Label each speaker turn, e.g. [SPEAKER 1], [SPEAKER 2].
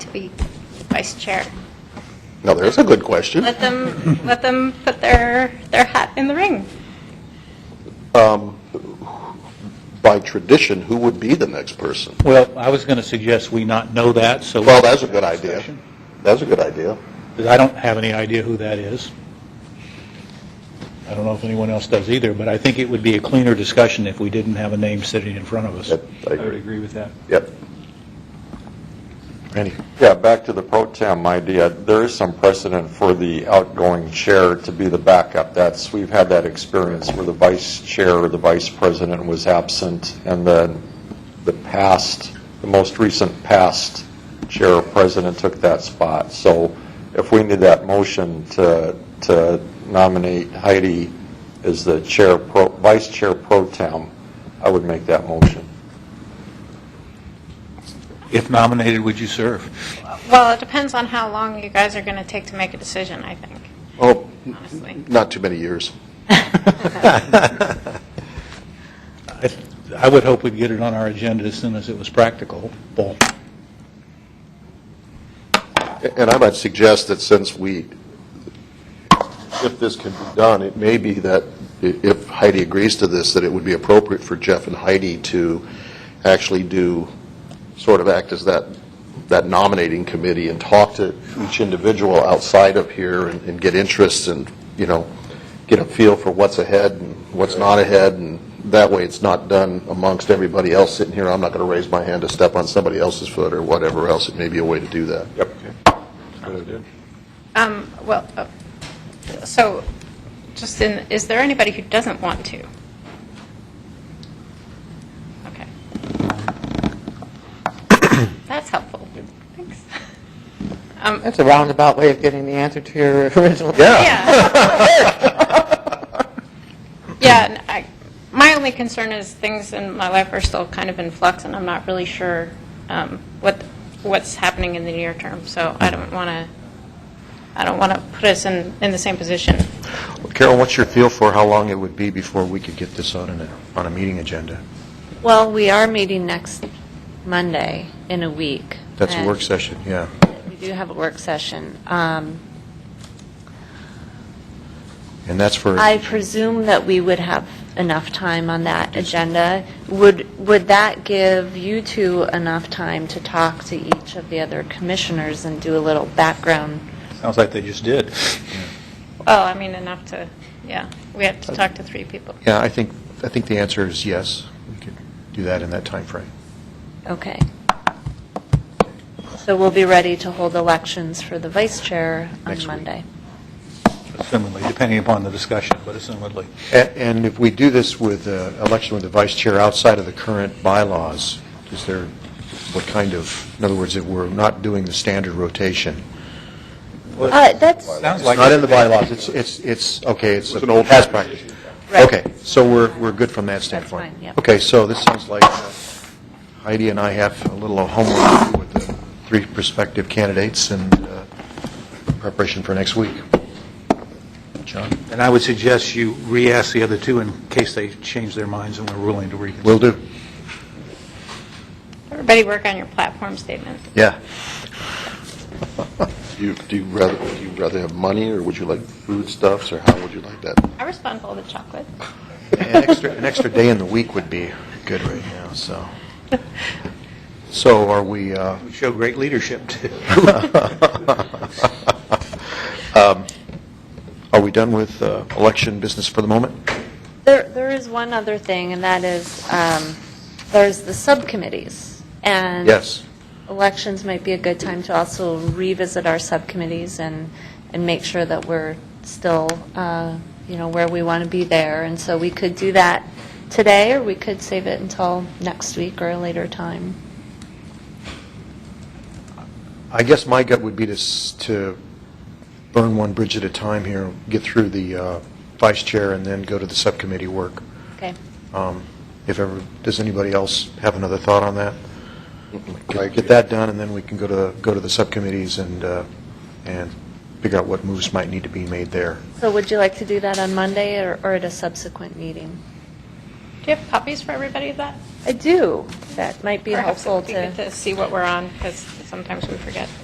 [SPEAKER 1] be vice chair.
[SPEAKER 2] Now, there's a good question.
[SPEAKER 1] Let them, let them put their, their hat in the ring.
[SPEAKER 2] By tradition, who would be the next person?
[SPEAKER 3] Well, I was going to suggest we not know that, so.
[SPEAKER 2] Well, that's a good idea. That's a good idea.
[SPEAKER 3] Because I don't have any idea who that is. I don't know if anyone else does either, but I think it would be a cleaner discussion if we didn't have a name sitting in front of us.
[SPEAKER 2] Yep, I
[SPEAKER 3] would
[SPEAKER 2] agree.
[SPEAKER 3] agree with that.
[SPEAKER 2] Yep.
[SPEAKER 4] Randy?
[SPEAKER 5] Yeah, back to the pro tem idea, there is some precedent for the outgoing chair to be the backup. That's, we've had that experience where the vice chair or the vice president was absent, and then the past, the most recent past chair or president took that spot. So if we need that motion to, to nominate Heidi as the chair, pro vice chair pro tem, I would make that motion.
[SPEAKER 3] If nominated, would you serve?
[SPEAKER 1] Well, it depends on how long you guys are going to take to make a decision, I think,
[SPEAKER 2] Oh,
[SPEAKER 1] honestly.
[SPEAKER 2] not too many years.
[SPEAKER 3] I I would hope we'd get it on our agenda as soon as it was practical. Well,
[SPEAKER 2] And I might suggest that since we, if this can be done, it may be that i- if Heidi agrees to this, that it would be appropriate for Jeff and Heidi to actually do, sort of act as that, that nominating committee and talk to each individual outside of here and, and get interests and, you know, get a feel for what's ahead and what's not ahead. And that way, it's not done amongst everybody else sitting here. I'm not going to raise my hand to step on somebody else's foot or whatever else. It may be a way to do that.
[SPEAKER 5] Yep.
[SPEAKER 1] Um, well, uh, so, just in, is there anybody who doesn't want to? Okay. That's helpful. Thanks. Um,
[SPEAKER 6] That's a roundabout way of getting the answer to your original.
[SPEAKER 1] Yeah. Yeah, and I, my only concern is things in my life are still kind of in flux, and I'm not really sure um, what, what's happening in the near term, so I don't want to, I don't want to put us in, in the same position.
[SPEAKER 4] Carol, what's your feel for how long it would be before we could get this on a, on a meeting agenda?
[SPEAKER 7] Well, we are meeting next Monday in a week.
[SPEAKER 4] That's a
[SPEAKER 7] and
[SPEAKER 4] work session, yeah.
[SPEAKER 7] We do have a work session. Um,
[SPEAKER 4] And that's for,
[SPEAKER 7] I presume that we would have enough time on that agenda. Would, would that give you two enough time to talk to each of the other commissioners and do a little background?
[SPEAKER 3] sounds like they just did.
[SPEAKER 1] Well, I mean, enough to, yeah, we have to talk to three people.
[SPEAKER 4] yeah, I think, I think the answer is yes. We could do that in that time frame.
[SPEAKER 7] Okay. So we'll be ready to hold elections for the vice chair
[SPEAKER 4] Next
[SPEAKER 7] on
[SPEAKER 4] week.
[SPEAKER 7] Monday.
[SPEAKER 3] Assumedly, depending upon the discussion, but assumedly.
[SPEAKER 4] A- And if we do this with uh, election with the vice chair outside of the current bylaws, is there, what kind of, in other words, if we're not doing the standard rotation?
[SPEAKER 7] Uh, That's,
[SPEAKER 3] Sounds
[SPEAKER 4] It's
[SPEAKER 3] like.
[SPEAKER 4] not in the bylaws, it's, it's, it's, okay, it's. an old. Past practice.
[SPEAKER 7] Right.
[SPEAKER 4] Okay, so we're, we're good from that standpoint?
[SPEAKER 7] fine, yep.
[SPEAKER 4] Okay, so this sounds like uh, Heidi and I have a little homework to do with the three prospective candidates and uh, preparation for next week. John?
[SPEAKER 3] And I would suggest you re-ask the other two in case they change their minds and we're willing to reconsider.
[SPEAKER 4] Will do.
[SPEAKER 1] Everybody work on your platform statement.
[SPEAKER 4] Yeah.
[SPEAKER 2] Do you, do you rather, do you rather have money, or would you like foodstuffs, or how would you like that?
[SPEAKER 1] I respond to all the chocolate.
[SPEAKER 4] An extra, an extra day in the week would be good right now, so. So are we, uh,
[SPEAKER 3] Would Show great leadership, too.
[SPEAKER 4] Um, are we done with uh, election business for the moment?
[SPEAKER 7] There, there is one other thing, and that is, um, there's the subcommittees. And
[SPEAKER 4] Yes.
[SPEAKER 7] elections might be a good time to also revisit our subcommittees and, and make sure that we're still, uh, you know, where we want to be there. And so we could do that today, or we could save it until next week or a later time.
[SPEAKER 4] I guess my gut would be to, s- to burn one bridge at a time here, get through the uh, vice chair and then go to the subcommittee work.
[SPEAKER 7] Okay.
[SPEAKER 4] Um, If ever, does anybody else have another thought on that? Get that done, and then we can go to, the- go to the subcommittees and, uh, and figure out what moves might need to be made there.
[SPEAKER 7] So would you like to do that on Monday or, or at a subsequent meeting?
[SPEAKER 1] Do you have copies for everybody of that?
[SPEAKER 7] I do. That might be
[SPEAKER 1] Perhaps it
[SPEAKER 7] helpful
[SPEAKER 1] would good To see what we're on, because sometimes we forget.